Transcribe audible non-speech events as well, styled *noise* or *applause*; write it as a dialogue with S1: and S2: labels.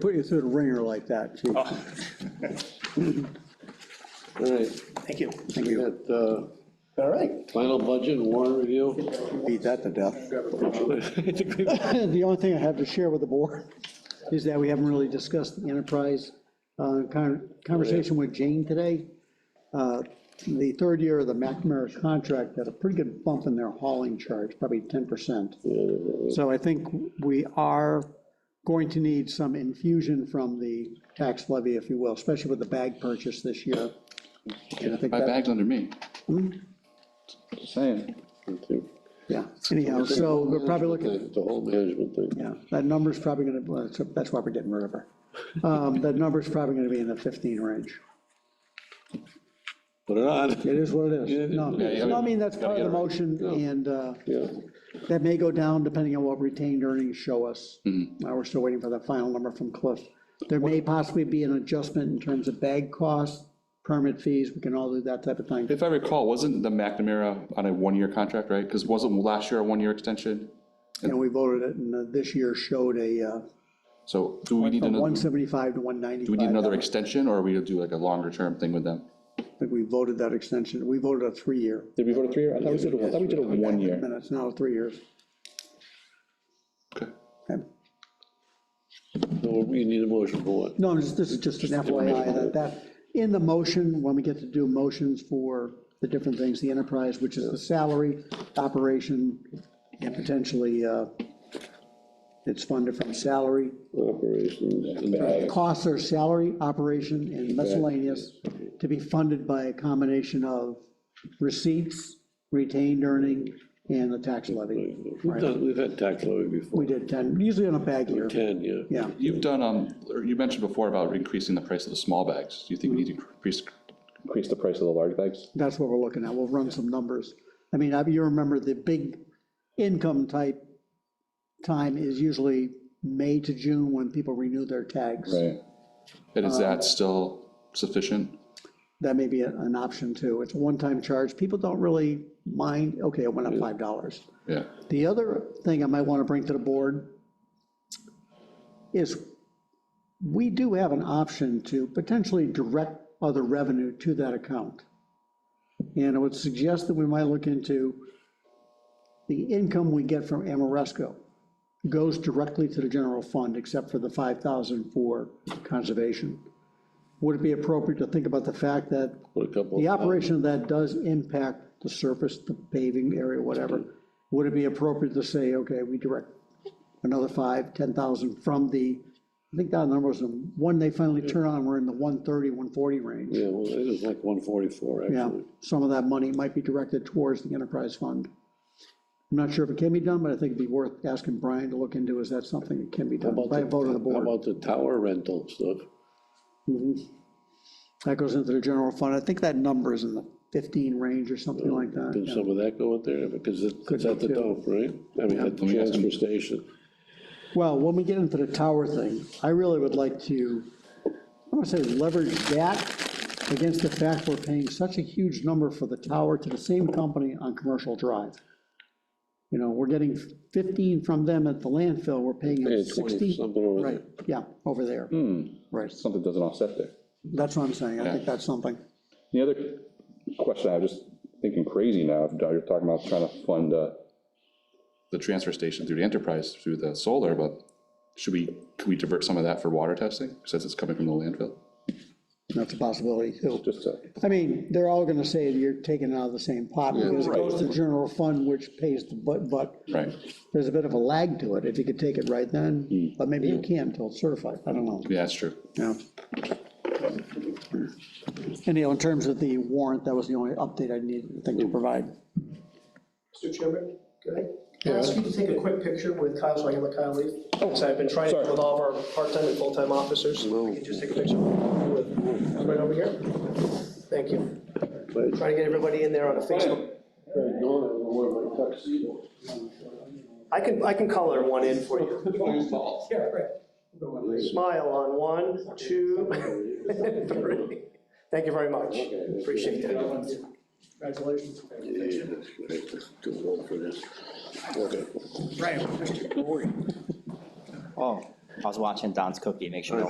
S1: Put you through the ringer like that, chief.
S2: All right,
S1: Thank you. Thank
S2: we
S1: you.
S2: got uh,
S1: All right.
S2: final budget and warrant review.
S1: Beat that to death. *laughs* The only thing I have to share with the board is that we haven't really discussed the enterprise uh, con- conversation with Jane today. Uh, The third year of the McNamara contract had a pretty good bump in their hauling charge, probably 10%. So I think we are going to need some infusion from the tax levy, if you will, especially with the bag purchase this year. And I think
S3: My
S1: that- Hmm?
S3: bag's under me. Just saying.
S1: Yeah, anyhow, so we're probably looking,
S2: The whole management thing.
S1: yeah, that number's probably gonna, well, that's- that's why we're getting rid of
S3: *laughs*
S1: her. Um, That number's probably gonna be in the 15 range.
S2: Put it on.
S1: It is what it is. No,
S3: Yeah, yeah.
S1: no, I mean, that's part of the
S3: Gotta get it right.
S1: motion,
S2: Yeah.
S1: and uh,
S2: Yeah,
S1: that may go down depending on what retained earnings show us.
S3: Mm-hmm.
S1: Now, we're still waiting for the final number from Cliff. There may possibly be an adjustment in terms of bag costs, permit fees, we can all do that type of thing.
S3: If I recall, wasn't the McNamara on a one-year contract, right? Because wasn't last year a one-year extension?
S1: And we voted it, and uh, this year showed a, uh,
S3: So do we need
S1: from
S3: another,
S1: 175 to
S3: do we need another
S1: 195.
S3: extension or are we gonna do like a longer-term thing with them?
S1: I think we voted that extension, we voted a three-year.
S4: Did we vote a three year? I thought we did a, I thought we did a one year.
S1: minutes, now three years.
S3: Okay.
S1: Okay.
S2: so we need a motion for it.
S1: No, I'm just- this is just an FYI, that, that, in the motion, when we get to do motions for the different things, the enterprise, which is the salary, operation, and potentially, uh, it's funded from salary.
S2: Operations and back.
S1: Costs are salary, operation, and miscellaneous, to be funded by a combination of receipts, retained earning, and the tax levy.
S2: We've done- We've had tax levy before,
S1: We did 10, usually on a bag year,
S2: ten, yeah.
S1: yeah.
S3: You've done, um, or you mentioned before about increasing the price of the small bags. Do you think we need to increase?
S4: Increase the price of the large bags?
S1: That's what we're looking at. We'll run some numbers. I mean, I- you remember the big income type time is usually May to June when people renew their tags.
S3: Right. And
S1: Uh,
S3: is that still sufficient?
S1: That may be a- an option too. It's a one-time charge. People don't really mind, okay, it went up $5.
S3: Yeah.
S1: The other thing I might want to bring to the board is we do have an option to potentially direct other revenue to that account. And I would suggest that we might look into the income we get from Amoresco goes directly to the general fund, except for the 5,000 for conservation. Would it be appropriate to think about the fact that
S2: Put a couple.
S1: the operation of that does impact the surface, the paving area, whatever. Would it be appropriate to say, okay, we direct another five, ten thousand from the, I think that number was the one they finally turn on, we're in the 130, 140 range.
S2: Yeah, well, it was like one forty-four,
S1: Yeah,
S2: actually.
S1: some of that money might be directed towards the enterprise fund. I'm not sure if it can be done, but I think it'd be worth asking Brian to look into, is that something that can be done
S2: About
S1: by a vote of the
S2: How
S1: board?
S2: about the tower rental stuff?
S1: That goes into the general fund, I think that number is in the fifteen range or something like that.
S2: Can
S1: yeah.
S2: some of that go in there? Because it's it's at the
S1: too.
S2: dump, right? I mean, at the
S3: Let me ask him.
S2: transfer station.
S1: Well, when we get into the tower thing, I really would like to, I want to say leverage that against the fact we're paying such a huge number for the tower to the same company on Commercial Drive. You know, we're getting 15 from them at the landfill, we're paying them
S2: Yeah, 20,
S1: 60.
S2: something over
S1: Right,
S2: there.
S1: yeah, over there. Right,
S4: Something doesn't offset there.
S1: that's what I'm saying, I think that's something.
S4: The other question, I'm just thinking crazy now, you're talking about trying to fund, uh,
S3: The transfer station through the enterprise, through the solar, but should we, could we divert some of that for water testing since it's coming from the landfill?
S1: That's a possibility, too.
S4: just to,
S1: I mean, they're all gonna say you're taking it out of the same pot, because it goes to the general fund, which pays the butt, but
S3: Right.
S1: there's a bit of a lag to it, if you could take it right then, but maybe you can't until it's certified, I don't know.
S3: Yeah, that's true.
S1: Yeah. Anyhow, in terms of the warrant, that was the only update I needed, thing to provide.
S5: Mr. Chairman, could I- can I ask you to take a quick picture with Kyle, so I can let Kyle leave? Because I've been trying to with all of our part-time and full-time officers. Can you Just take a picture with, right over here. Thank you. Trying to get everybody in there on a Facebook. I can, I can color one in for you. Yeah, right. Smile on one, two, *laughs* three. Thank you very much. Appreciate it. Congratulations.
S2: Yeah, that's right. Too old for this. Okay.
S1: Right, Mr. Corey.
S6: Oh, I was watching Don's cookie, make sure no